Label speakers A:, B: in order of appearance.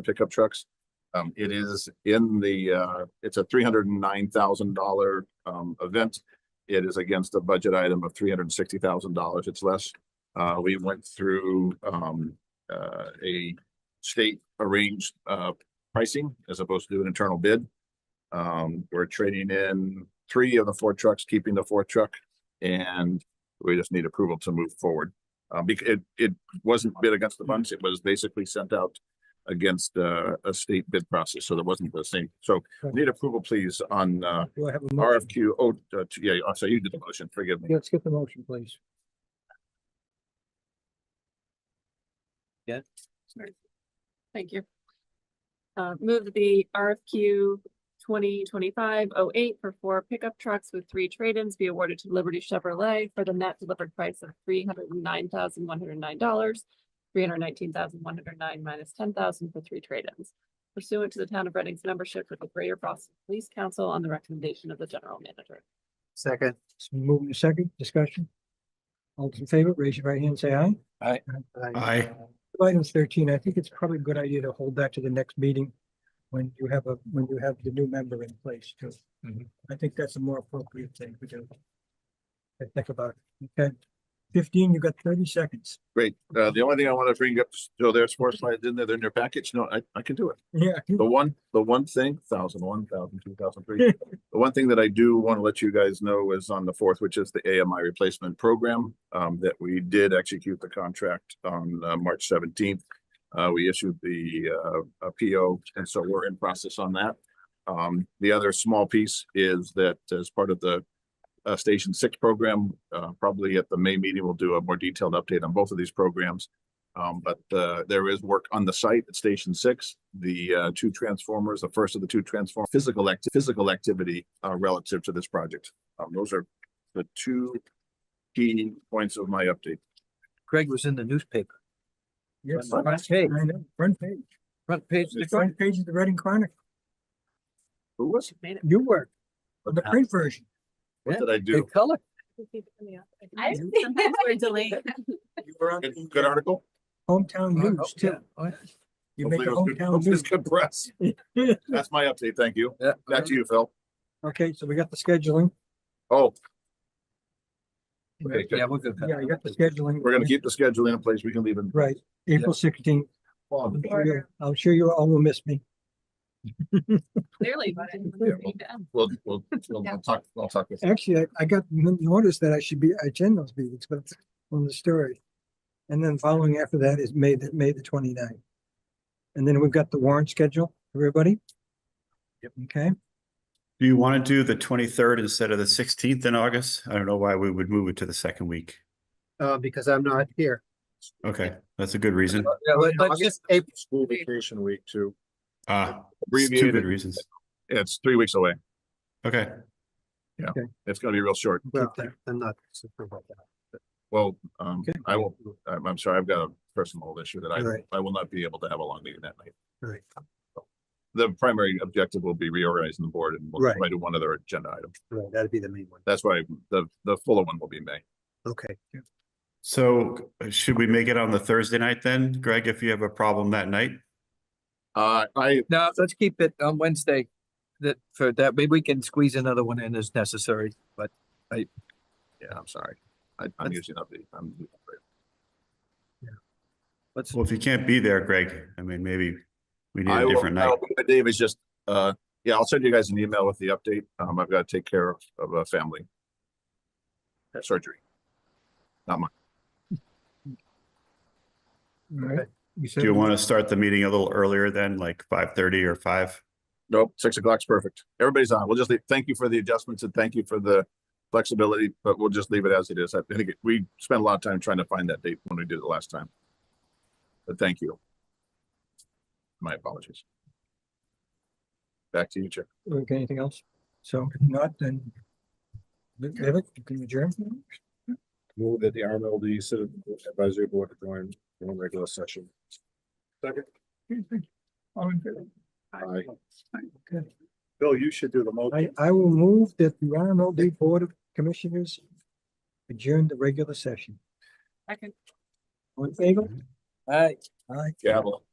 A: the pickup trucks. Um, it is in the, uh, it's a three hundred and nine thousand dollar, um, event. It is against a budget item of three hundred and sixty thousand dollars. It's less. Uh, we went through, um, uh, a state arranged, uh, pricing as opposed to an internal bid. Um, we're trading in three of the four trucks, keeping the fourth truck, and we just need approval to move forward. Uh, bec- it, it wasn't bid against the bunch. It was basically sent out against uh, a state bid process, so there wasn't the same. So
B: Right.
A: need approval, please, on uh,
B: Do I have a motion?
A: RFQ, oh, uh, t- yeah, oh, so you did the motion, forgive me.
B: Yeah, Let's get the motion, please.
C: Thank you. Uh, move the RFQ twenty twenty-five oh eight for four pickup trucks with three trade-ins be awarded to Liberty Chevrolet for the net delivered price of three hundred and nine thousand one hundred and nine dollars. Three hundred nineteen thousand one hundred nine minus ten thousand for three trade-ins pursuant to the town of Reading's membership with the Greater Boston Police Council on the recommendation of the general manager.
D: Second.
B: It's been moved and second, discussion. All those in favor, raise your right hand, say aye.
E: Aye.
B: Item thirteen, I think it's probably a good idea to hold that to the next meeting when you have a, when you have the new member in place too.
A: Mm-hmm.
E: Mhm.
B: I think that's a more appropriate thing to do. I think about it, okay? Fifteen, you got thirty seconds.
A: Great. Uh, The only thing I want to bring up, so there's four slides in there, they're in your package. No, I, I can do it.
B: Yeah,
A: The one, the one thing, thousand one, thousand two, thousand three. The one thing that I do want to let you guys know is on the fourth, which is the AMI replacement program, um, that we did execute the contract on, uh, March seventeenth. Uh, we issued the, uh, a PO, and so we're in process on that. Um, the other small piece is that as part of the, uh, Station Six program, uh, probably at the May meeting, we'll do a more detailed update on both of these programs. Um, but, uh, there is work on the site at Station Six, the, uh, two transformers, the first of the two transform, physical act, physical activity, uh, relative to this project. Um, those are the two key points of my update.
D: Greg was in the newspaper,
B: Yes,
D: Front
B: front page,
D: page.
B: I know, front page,
D: front page. of the
B: the front page of the Reading Chronicle,
A: Who was, it?
C: Made it.
B: you were, on the print version.
A: what did I do?
D: Good color.
C: I
F: I've
C: think
F: seen
C: sometimes we're delayed.
B: You were on
A: Good
B: the
A: good article?
B: hometown
D: Oh,
B: news
D: yeah.
B: too.
D: Oh, yeah.
B: You make
A: Hopefully it
B: a
A: was good-
B: hometown
A: hopefully
B: news.
A: it's good press. That's my update, thank you.
D: Yeah.
A: Back to you, Phil.
B: Okay, so we got the scheduling.
A: Oh, Okay, good.
D: Yeah, we're good.
B: Yeah, you got the scheduling.
A: we're gonna keep the schedule in place, we can leave in.
B: Right, April sixteenth. I'm sure you'll- I'm sure you all will miss me.
C: Clearly. but I didn't want to be done.
A: We'll, we'll, we'll I'll talk, I'll talk with you.
B: Actually, I, I got n- notice that I should be, I attend those meetings, but it's on the story. And then following after that is May, the May the 29th. And then we've got the warrant schedule, everybody? Yep. Okay,
E: Do you want to do the twenty-third instead of the sixteenth in August? I don't know why we would move it to the second week.
D: Uh, because I'm not here.
E: Okay, that's a good reason.
D: Yeah, let- let's just, April-
A: School vacation week too.
E: Ah, it's two good
A: Abbreviated,
E: reasons.
A: it's three weeks away,
E: Okay,
A: it's gonna be real short.
D: well, I'm not super about that.
A: Well, um,
B: Okay.
A: I will, I'm, I'm sorry, I've got a personal issue that
D: Alright.
A: I, I will not be able to have a long meeting that night.
D: Alright.
A: The primary objective will be reorganizing the board and we'll
D: Right.
A: try to one other agenda item.
D: Right, that'd be the main one.
A: That's why the, the fuller one will be May.
D: Okay.
E: so uh, should we make it on the Thursday night then, Greg, if you have a problem that night?
A: Uh, I,
D: Now, let's keep it on Wednesday. That for that, maybe we can squeeze another one in as necessary, but
A: yeah, I'm sorry. I, I'm
D: That's-
A: using up the, I'm,
D: let's,
E: Well, if you can't be there, Greg, I mean, maybe we need
A: I
E: a
A: will,
E: different night.
A: I'll- but Dave is just, uh, yeah, I'll send you guys an email with the update. Um, I've got to take care of, of a family surgery.
B: all right. You
E: Do
B: said,
E: you want to start the meeting a little earlier then, like five thirty or five?
A: Nope, six o'clock's perfect. Everybody's on. We'll just leave. Thank you for the adjustments and thank you for the flexibility, but we'll just leave it as it is. I think it- we spent a lot of time trying to find that date when we did it last time. But thank you. My apologies. Back to you, Chair.
B: we got anything else? So if not, then David, you can adjourn.
A: Move that the RMLD Citizen Advisory Board join in regular session. Second.
B: All in favor?
A: Aye.
B: Okay.
A: Bill, you should do the most.
B: I, I will move that the RMLD Board of Commissioners adjourn the regular session.
C: I can
B: All in favor?
D: all right.
B: Aye.
A: Gavel.